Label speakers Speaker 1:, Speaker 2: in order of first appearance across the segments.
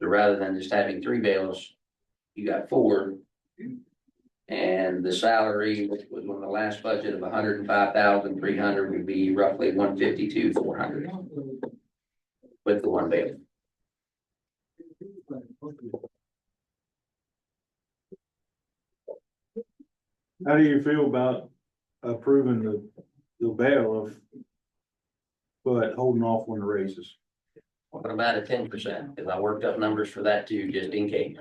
Speaker 1: So rather than just having three bailiffs, you got four. And the salary, which was on the last budget of 105,300, hundred and five thousand three hundred, would be roughly one fifty-two, four hundred. With the one bailiff.
Speaker 2: How do you feel about approving the, the bailiff? But holding off on the raises?
Speaker 1: What about a ten percent? Cause I worked up numbers for that too, just in case.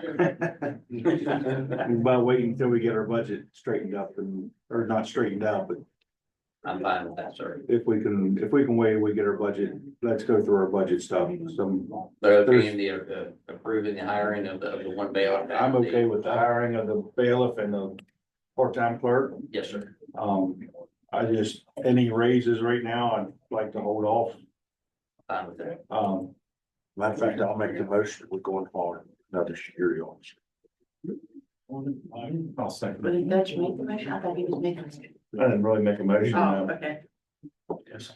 Speaker 2: By waiting until we get our budget straightened up and, or not straightened out, but
Speaker 1: I'm fine with that, sir.
Speaker 2: if we can, if we can wait, we get our budget, let's go through our budget stuff, so.
Speaker 1: But okay, the, uh, approving the hiring of the, of the one bailiff.
Speaker 2: I'm okay with the hiring of the bailiff and the part-time clerk.
Speaker 1: Yes, sir.
Speaker 2: Um, I just, any raises right now, I'd like to hold off.
Speaker 1: Fine with that.
Speaker 2: Um, matter of fact, I'll make the motion, we're going for another security officer. I'll
Speaker 3: But
Speaker 2: second
Speaker 3: did Dutch make the motion? I thought he was making. it.
Speaker 2: I didn't really make a motion,
Speaker 3: Oh,
Speaker 2: I
Speaker 3: okay.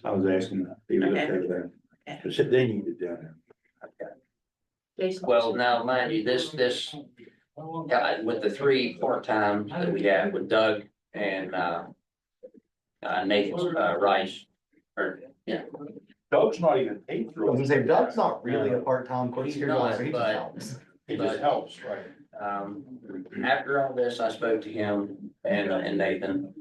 Speaker 2: I was asking. if he was okay with that.
Speaker 3: Okay.
Speaker 2: They said they needed down there.
Speaker 3: Jason.
Speaker 1: Well, now mind you, this, this guy with the three part-time that we have with Doug and, uh, uh, Nathan, uh, Rice, or, yeah,
Speaker 2: Doug's not even paid
Speaker 4: I was gonna say, Doug's not really a part-time court
Speaker 1: He's
Speaker 4: security
Speaker 1: not,
Speaker 4: officer, he just
Speaker 1: but-
Speaker 4: helps.
Speaker 2: He
Speaker 1: just
Speaker 2: helps, right?
Speaker 1: Um, after all this, I spoke to him and, and Nathan.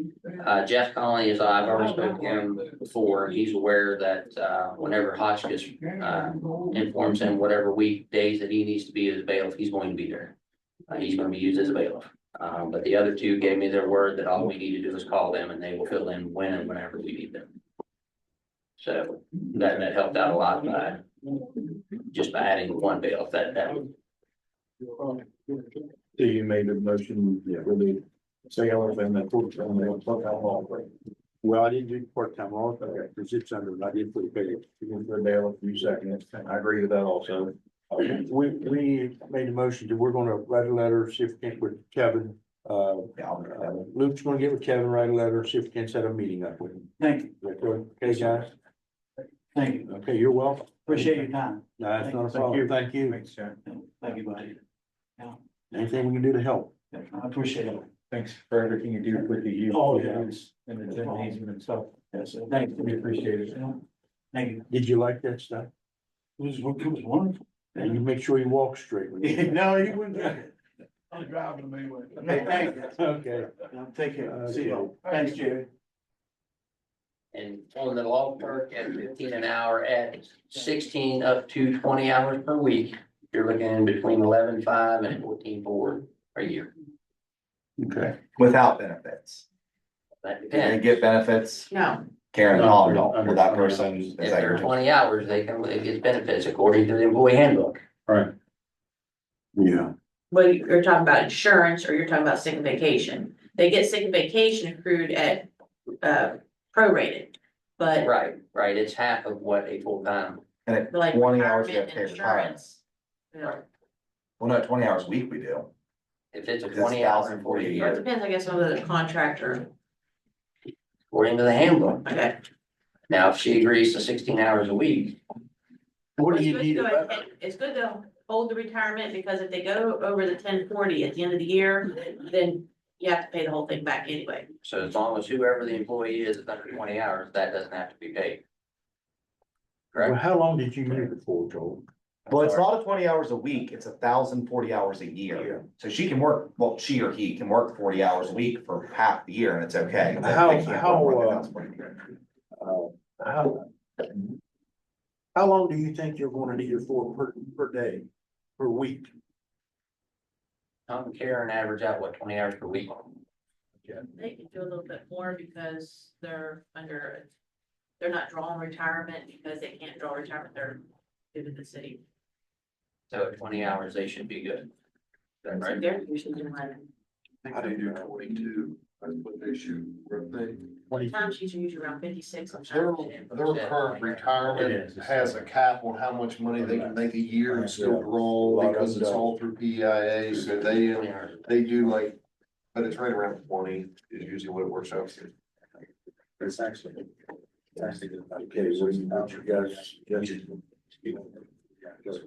Speaker 1: Uh, Jeff Conley, as I've already spoken to him before, he's aware that, uh, whenever Hotchkiss, uh, informs him whatever weekdays that he needs to be as bailiff, he's going to be there. Uh, he's gonna be used as a bailiff. Um, but the other two gave me their word that all we need to do is call them and they will fill in when and whenever we need them. So that, that helped out a lot by, Uh, just by adding one bailiff, that, that would
Speaker 2: So you made a motion, yeah, really, say I would have been that fourth time, they would put law, right? Well, I didn't do part-time law, okay, because it's under, I did put it, you can put bail a few seconds, I agree with that also. We, we made a motion that we're gonna write a letter, see if we can, with Kevin, uh, uh, Luke's gonna get with Kevin, write a letter, see if we can set a meeting up with him.
Speaker 5: Thank you,
Speaker 2: Is that Okay, guys,
Speaker 5: thank you.
Speaker 2: okay, you're welcome.
Speaker 5: Appreciate your time.
Speaker 2: No, that's not a problem, thank you,
Speaker 5: Thank you, buddy. Yeah,
Speaker 2: anything we can do to help.
Speaker 5: I appreciate it.
Speaker 6: Thanks for everything you do with the youth.
Speaker 5: Oh, yeah.
Speaker 6: And the gymnasium and stuff.
Speaker 5: Yes, thanks.
Speaker 6: We appreciate it.
Speaker 5: Thank you.
Speaker 2: Did you like that stuff?
Speaker 5: It was, it was wonderful.
Speaker 2: And you make sure you walk straight. when you-
Speaker 5: No, you wouldn't. I'm driving them anyway. Uh, Thank you.
Speaker 2: Okay.
Speaker 5: Now, Take care. See you. Thanks, Jerry.
Speaker 1: And on the law clerk at fifteen an hour at sixteen up to twenty hours per week, you're looking between eleven five and fourteen four a year.
Speaker 2: Okay.
Speaker 4: Without benefits.
Speaker 1: That
Speaker 4: They
Speaker 1: depends.
Speaker 4: get benefits,
Speaker 3: No,
Speaker 4: Karen and Holly don't,
Speaker 2: Under-
Speaker 4: for that
Speaker 2: under-
Speaker 4: person. is
Speaker 1: If
Speaker 4: that
Speaker 1: they're
Speaker 4: your-
Speaker 1: twenty hours, they can, it gets benefits according to the employee handbook.
Speaker 2: Yeah.
Speaker 3: well, you- you're talking about insurance or you're talking about sick and vacation. They get sick and vacation accrued at, uh, prorated. But
Speaker 1: Right, right. It's half of what a full-time,
Speaker 4: And at
Speaker 3: like
Speaker 4: twenty hours, you have
Speaker 3: retirement
Speaker 4: to
Speaker 3: and
Speaker 4: pay retirement.
Speaker 3: insurance. you know,
Speaker 4: Well, no, twenty hours a week we do.
Speaker 1: if it's a
Speaker 4: That's
Speaker 1: twenty hour employee
Speaker 4: 1,040
Speaker 1: a
Speaker 3: Or
Speaker 1: year,
Speaker 3: it depends, I guess, on the contractor.
Speaker 1: according to the handbook.
Speaker 3: Okay.
Speaker 1: Now, if she agrees to sixteen hours a week,
Speaker 2: What do
Speaker 3: It's
Speaker 2: you
Speaker 3: good
Speaker 2: need?
Speaker 3: to go
Speaker 2: about-
Speaker 3: ahead- It's good to hold the retirement because if they go over the ten forty at the end of the year, then you have to pay the whole thing back anyway.
Speaker 1: so as long as whoever the employee is, is under twenty hours, that doesn't have to be paid.
Speaker 2: Well, how long did you need it for, Joel?
Speaker 4: Well, it's not a twenty hours a week, it's a thousand forty hours a year. So she can work, well, she or he can work forty hours a week for half the year and it's okay. They-
Speaker 2: How-
Speaker 4: they can't work
Speaker 2: how,
Speaker 4: more than
Speaker 2: uh,
Speaker 4: 1,040 a year.
Speaker 2: Uh, How how long do you think you're gonna need it for per, per day, per week?
Speaker 1: Tom and Karen average out what, twenty hours per week?
Speaker 3: They can do a little bit more because they're under, they're not drawing retirement because they can't draw retirement, they're due to the city.
Speaker 1: So at twenty hours, they should be good. Is that
Speaker 3: So
Speaker 1: right?
Speaker 3: They're usually doing like,
Speaker 2: How do you do
Speaker 6: twenty-two, that's what they shoot, were they?
Speaker 2: Twenty,
Speaker 3: time sheets are usually around fifty-six.
Speaker 6: Their,
Speaker 3: sometimes.
Speaker 6: their current
Speaker 3: Um,
Speaker 6: retirement has a cap on how much money they can make a year and still roll, because it's all through PEIA, so they,
Speaker 1: Twenty hours.
Speaker 6: they do like, but it's right around twenty is usually what it works out to.
Speaker 2: it's actually. Okay, what do you, what you guys? you guys-